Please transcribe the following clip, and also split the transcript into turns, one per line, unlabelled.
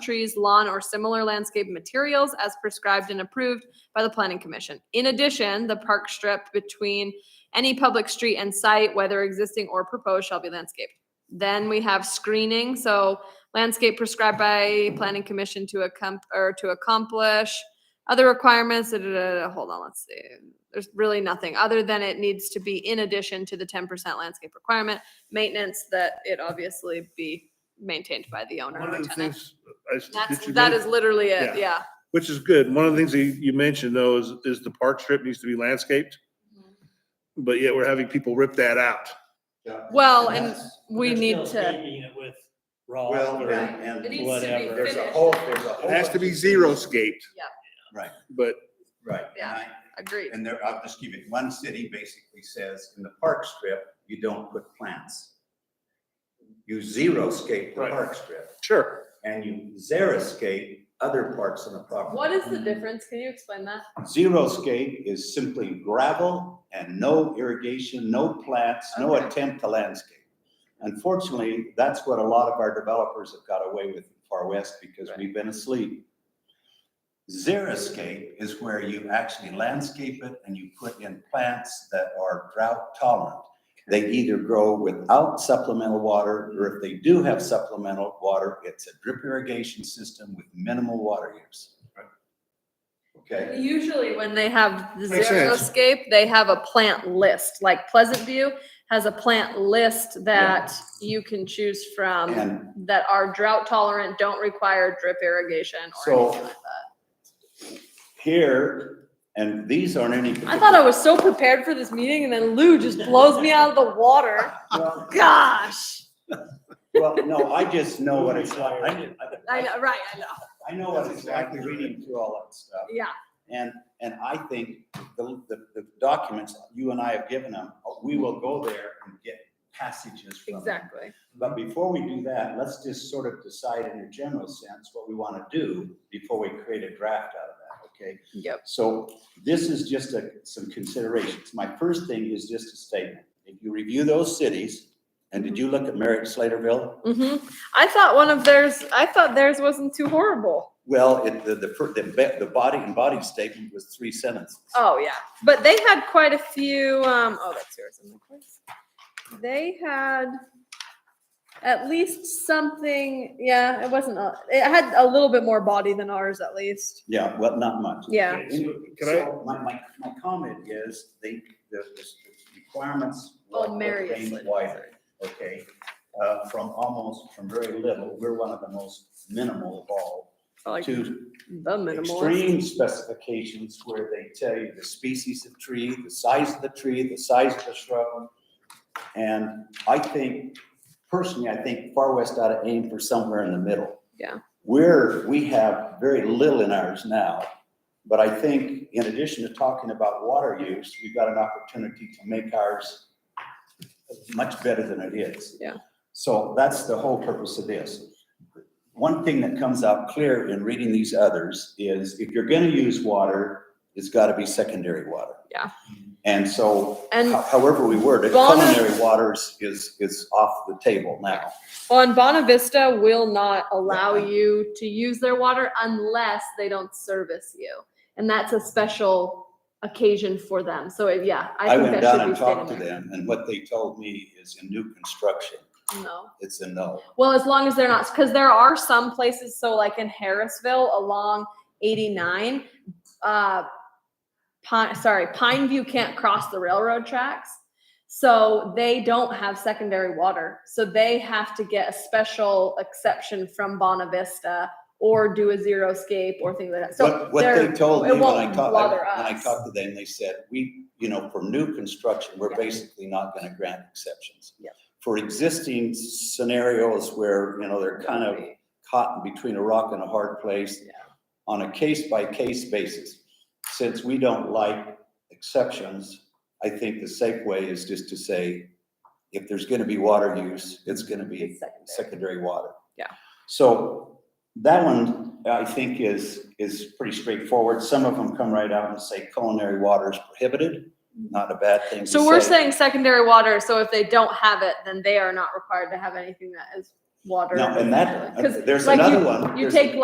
trees, lawn, or similar landscape materials as prescribed and approved by the planning commission. In addition, the park strip between any public street and site, whether existing or proposed, shall be landscaped. Then we have screening, so landscape prescribed by planning commission to accom- or to accomplish other requirements, da, da, da, da. hold on, let's see. There's really nothing other than it needs to be in addition to the ten percent landscape requirement, maintenance that it obviously be maintained by the owner
One
or
of the
tenant.
things, I s-
That's,
did you
that
men-
is literally it,
Yeah.
yeah.
which is good. One of the things that you- you mentioned though is, is the park strip needs to be landscaped, but yet we're having people rip that out.
Well, and
Yes.
we
They're
need
still
to,
Paving it with raw.
Well,
or-
and,
It needs
and
to be
Whatever.
there's a
finished.
whole, there's a whole.
It has to
bunch
be
of-
zero scaped.
Yeah.
Right.
But
Right. and
Yeah.
I-
agreed.
And there, I'll just give it, one city basically says, in the park strip, you don't put plants. You zero scape the
Right.
park strip,
sure,
and you xeriscape other parts of the property.
What is the difference? Can you explain that?
Zero scape is simply gravel and no irrigation, no plants, no
Okay.
attempt to landscape. Unfortunately, that's what a lot of our developers have got away with in Far West because we've been asleep. Xeriscape is where you actually landscape it and you put in plants that are drought tolerant. They either grow without supplemental water, or if they do have supplemental water, it's a drip irrigation system with minimal water use. Okay?
Usually when they have the
Makes sense.
xeriscape, they have a plant list, like Pleasant View has a plant list that you can choose from
And
that are drought tolerant, don't require drip irrigation or
So-
anything like that.
here, and these aren't any.
I thought I was so prepared for this meeting and then Lou just blows me out of the water.
Well,
Gosh.
well, no, I just know what it's like. I,
I
I-
know, right, I know.
I know what it's like reading through all that stuff.
Yeah,
And, and I think the, the, the documents you and I have given them, we will go there and get passages from them.
exactly.
But before we do that, let's just sort of decide in a general sense what we want to do before we create a draft out of that, okay?
Yep.
So this is just a, some considerations. My first thing is just a statement. If you review those cities, and did you look at Merritt Slaterville?
hmm I thought one of theirs, I thought theirs wasn't too horrible.
Well, it, the, the, fir- the, be- the body and body statement was three sentences.
Oh, yeah. But they had quite a few, um, oh, that's yours. I'm like, where's- They had at least something, yeah, it wasn't, a- it had a little bit more body than ours at least.
Yeah, well, not much.
Yeah.
Can I-
So My, my, my comment is, they, the, the requirements. were-
Oh,
were
Marius
made
Slater,
wider.
sorry.
okay, uh, from almost, from very little, we're one of the most minimal of all,
Or Like
to
the minimal.
extreme specifications where they tell you the species of tree, the size of the tree, the size of the shrub. And I think, personally, I think Far West ought to aim for somewhere in the middle.
Yeah.
We're, we have very little in ours now, but I think in addition to talking about water use, we've got an opportunity to make ours much better than it is.
Yeah.
So that's the whole purpose of this. One thing that comes out clear in reading these others is if you're gonna use water, it's gotta be secondary water.
Yeah.
And so
And
ho- however we word it,
Bono-
culinary waters is, is off the table now.
on Bonavista will not allow you to use their water unless they don't service you. And that's a special occasion for them. So yeah, I
I
think that
went down
should be
and talked to
stated. in
them and what they told me is in new construction,
there. No.
it's a no.
Well, as long as they're not, because there are some places, so like in Harrisville along 89, uh, Pine, sorry, Pine View can't cross the railroad tracks. So they don't have secondary water. So they have to get a special exception from Bonavista or do a zero scape or things like that. So
What, what they
they're-
told me
it
when I
won't
talked,
bother
when I
us.
talked to them, they said, we, you know, for new construction, we're
Yeah.
basically not gonna grant exceptions.
Yep.
For existing scenarios where, you know, they're kind of caught in between a rock and a hard place
Yeah.
on a case-by-case basis. Since we don't like exceptions, I think the safe way is just to say, if there's gonna be water use, it's gonna be
It's secondary.
secondary water.
Yeah.
So that one, I think is, is pretty straightforward. Some of them come right out and say culinary water is prohibited,
Mm-hmm.
not a bad thing to say.
So we're saying secondary water. So if they don't have it, then they are not required to have anything that is water.
Now, and that,
'Cause
there's
like you-
another one.
You
There's-
take